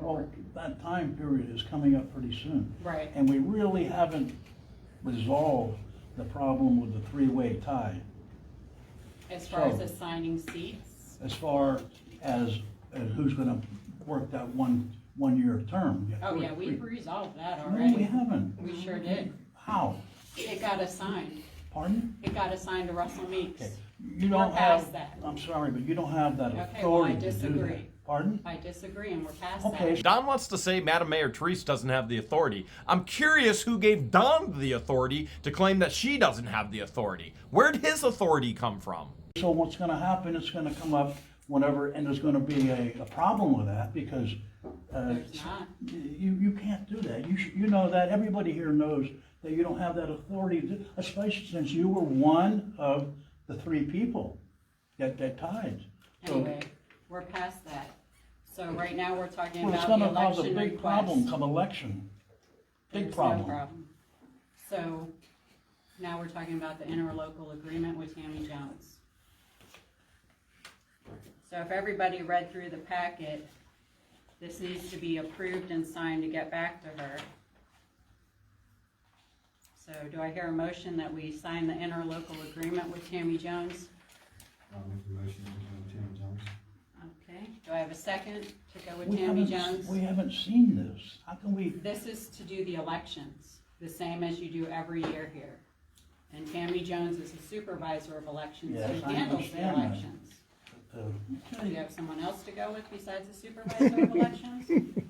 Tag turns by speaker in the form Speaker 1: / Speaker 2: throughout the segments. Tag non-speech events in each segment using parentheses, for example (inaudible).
Speaker 1: Well, that time period is coming up pretty soon.
Speaker 2: Right.
Speaker 1: And we really haven't resolved the problem with the three-way tie
Speaker 2: As far as
Speaker 1: So-
Speaker 2: assigning seats,
Speaker 1: as far as, as who's gonna work that one, one-year term.
Speaker 2: oh yeah,
Speaker 1: Three-
Speaker 2: we've resolved that
Speaker 1: No, we
Speaker 2: already.
Speaker 1: haven't.
Speaker 2: We sure did.
Speaker 1: How?
Speaker 2: It got assigned.
Speaker 1: Pardon?
Speaker 2: It got assigned to Russell Meeks.
Speaker 1: Okay, you
Speaker 2: We're
Speaker 1: don't
Speaker 2: past
Speaker 1: have,
Speaker 2: that.
Speaker 1: I'm sorry, but you don't have that
Speaker 2: Okay, well, I
Speaker 1: authority to do
Speaker 2: disagree.
Speaker 1: that. Pardon?
Speaker 2: I disagree and we're past
Speaker 1: Okay,
Speaker 2: that.
Speaker 3: Don wants to say Madam Mayor Therese doesn't have the authority. I'm curious who gave Don the authority to claim that she doesn't have the authority. Where'd his authority come from?
Speaker 1: So what's gonna happen, it's gonna come up whenever, and there's gonna be a, a problem with that, because, uh,
Speaker 2: There's not.
Speaker 1: you, you can't do that. You should, you know that, everybody here knows that you don't have that authority, to- especially since you were one of the three people that, that tied. So-
Speaker 2: Anyway, we're past that. So right now, we're talking
Speaker 1: Well, it's
Speaker 2: about the
Speaker 1: gonna cause a
Speaker 2: election
Speaker 1: big problem
Speaker 2: request.
Speaker 1: come election. Big
Speaker 2: There's no
Speaker 1: problem.
Speaker 2: So now we're talking about the interlocal agreement with Tammy Jones. So if everybody read through the packet, this needs to be approved and signed to get back to her. So do I hear a motion that we sign the interlocal agreement with Tammy Jones?
Speaker 4: I'll make the motion to go to Tim Jones.
Speaker 2: Okay, do I have a second to go
Speaker 1: We
Speaker 2: with Tammy
Speaker 1: haven't-
Speaker 2: Jones?
Speaker 1: We haven't seen this. How can we,
Speaker 2: This is to do the elections, the same as you do every year here. And Tammy Jones is the supervisor of elections,
Speaker 1: Yes, I
Speaker 2: who handles the
Speaker 1: understand that.
Speaker 2: elections.
Speaker 1: uh,
Speaker 2: Do you have someone else to go with besides the supervisor
Speaker 1: (laughs)
Speaker 2: of elections?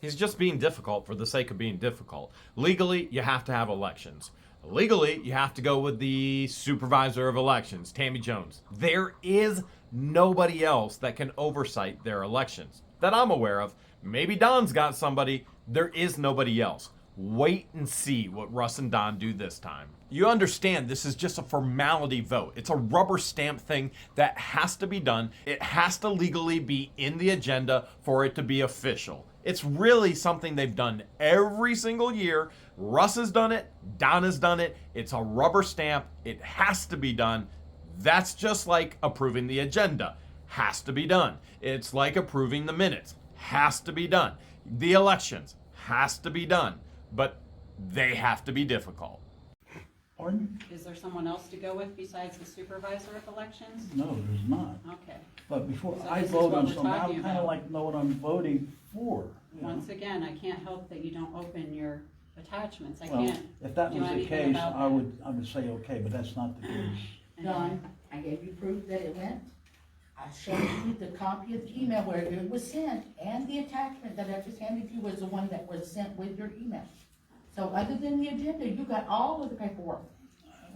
Speaker 3: He's just being difficult for the sake of being difficult. Legally, you have to have elections. Legally, you have to go with the supervisor of elections, Tammy Jones. There is nobody else that can oversight their elections that I'm aware of. Maybe Don's got somebody. There is nobody else. Wait and see what Russ and Don do this time. You understand this is just a formality vote. It's a rubber stamp thing that has to be done. It has to legally be in the agenda for it to be official. It's really something they've done every single year. Russ has done it, Don has done it. It's a rubber stamp. It has to be done. That's just like approving the agenda. Has to be done. It's like approving the minutes. Has to be done. The elections has to be done, but they have to be difficult.
Speaker 1: pardon?
Speaker 2: Is there someone else to go with besides the supervisor of elections?
Speaker 1: No, there's not.
Speaker 2: Okay,
Speaker 1: But before
Speaker 2: So
Speaker 1: I
Speaker 2: this is
Speaker 1: vote
Speaker 2: what
Speaker 1: on
Speaker 2: we're
Speaker 1: something, I
Speaker 2: talking
Speaker 1: kind of
Speaker 2: about.
Speaker 1: like know what I'm voting for. you know?
Speaker 2: once again, I can't help that you don't open your attachments, I
Speaker 1: Well,
Speaker 2: can't.
Speaker 1: if that
Speaker 2: do
Speaker 1: was the
Speaker 2: anything
Speaker 1: case,
Speaker 2: about
Speaker 1: I
Speaker 2: that.
Speaker 1: would, I would say, okay, but that's not the
Speaker 5: (clears throat)
Speaker 1: case.
Speaker 2: Anyway,
Speaker 5: Don, I gave you proof that it went. I showed you the copy of the email where it was sent, and the attachment that I just handed you was the one that was sent with your email. So other than the agenda, you got all of the paperwork.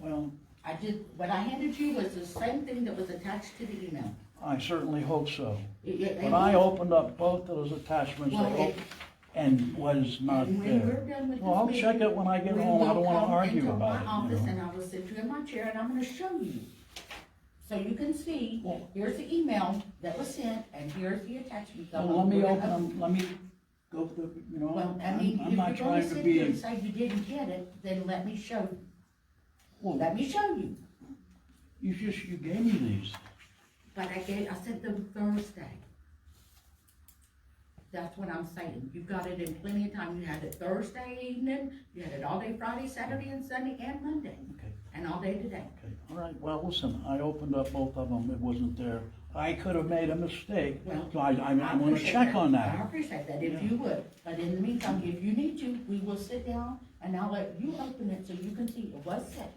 Speaker 1: Well,
Speaker 5: I did, what I handed you was the same thing that was attached to the email.
Speaker 1: I certainly hope so.
Speaker 5: It- it-
Speaker 1: But I opened up both those attachments
Speaker 5: Well,
Speaker 1: they
Speaker 5: it-
Speaker 1: op- and was not
Speaker 5: And when we're
Speaker 1: there.
Speaker 5: done with this
Speaker 1: Well, I'll
Speaker 5: meeting,
Speaker 1: check it when I get
Speaker 5: we
Speaker 1: home. I
Speaker 5: will
Speaker 1: don't wanna
Speaker 5: come
Speaker 1: argue
Speaker 5: into
Speaker 1: about
Speaker 5: my
Speaker 1: it, you
Speaker 5: office
Speaker 1: know.
Speaker 5: and I will sit you in my chair and I'm gonna show you. So you can see,
Speaker 1: Well-
Speaker 5: here's the email that was sent and here's the attachment. that
Speaker 1: Well, let me
Speaker 5: we're
Speaker 1: open
Speaker 5: gonna-
Speaker 1: them, let me go through, you know,
Speaker 5: Well, I
Speaker 1: I'm,
Speaker 5: mean, if
Speaker 1: I'm
Speaker 5: you're
Speaker 1: not
Speaker 5: gonna
Speaker 1: trying to
Speaker 5: sit here and
Speaker 1: be.
Speaker 5: say you didn't get it, then let me show, let
Speaker 1: Well,
Speaker 5: me show you.
Speaker 1: you just, you gave me these.
Speaker 5: But I gave, I sent them Thursday. That's what I'm saying. You got it in plenty of time. You had it Thursday evening, you had it all day Friday, Saturday and Sunday and Monday,
Speaker 1: Okay,
Speaker 5: and all day today.
Speaker 1: okay, all right, well, listen, I opened up both of them, it wasn't there. I could have made a mistake,
Speaker 5: Well,
Speaker 1: so I, I, I'm gonna
Speaker 5: appreciate
Speaker 1: check
Speaker 5: that.
Speaker 1: on
Speaker 5: I
Speaker 1: that.
Speaker 5: appreciate that, if
Speaker 1: Yeah.
Speaker 5: you would, but in the meantime, if you need to, we will sit down and I'll let you open it so you can see it was sent.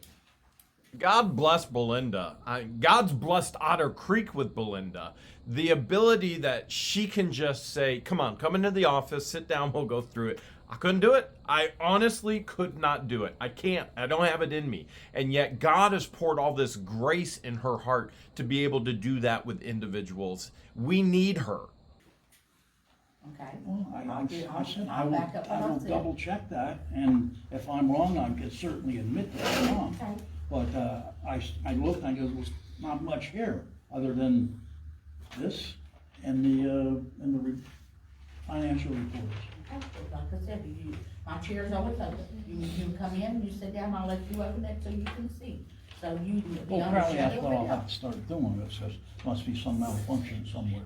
Speaker 3: God bless Belinda. I- God's blessed Otter Creek with Belinda. The ability that she can just say, come on, come into the office, sit down, we'll go through it. I couldn't do it. I honestly could not do it. I can't. I don't have it in me. And yet, God has poured all this grace in her heart to be able to do that with individuals. We need her.
Speaker 5: Okay.
Speaker 1: Well, I, I,
Speaker 5: get-
Speaker 1: I said, I
Speaker 5: I'll
Speaker 1: will,
Speaker 5: back up
Speaker 1: I
Speaker 5: what I
Speaker 1: will
Speaker 5: said.
Speaker 1: double check that, and if I'm wrong, I can certainly admit that I'm
Speaker 5: Okay.
Speaker 1: wrong. But, uh, I, s- I looked, and I go, there's not much here, other than this and the, uh, and the re- financial reports.
Speaker 5: Like I said, you, my chair's always open, you, you come in, you sit down, I'll let you open it so you can see. So you, the
Speaker 1: Well,
Speaker 5: owner
Speaker 1: apparently
Speaker 5: shut
Speaker 1: that's what I'll
Speaker 5: everything
Speaker 1: have
Speaker 5: up.
Speaker 1: to start doing, it says, must be some malfunction somewhere.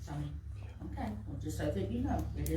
Speaker 5: So, Okay, well, just so that you know, it is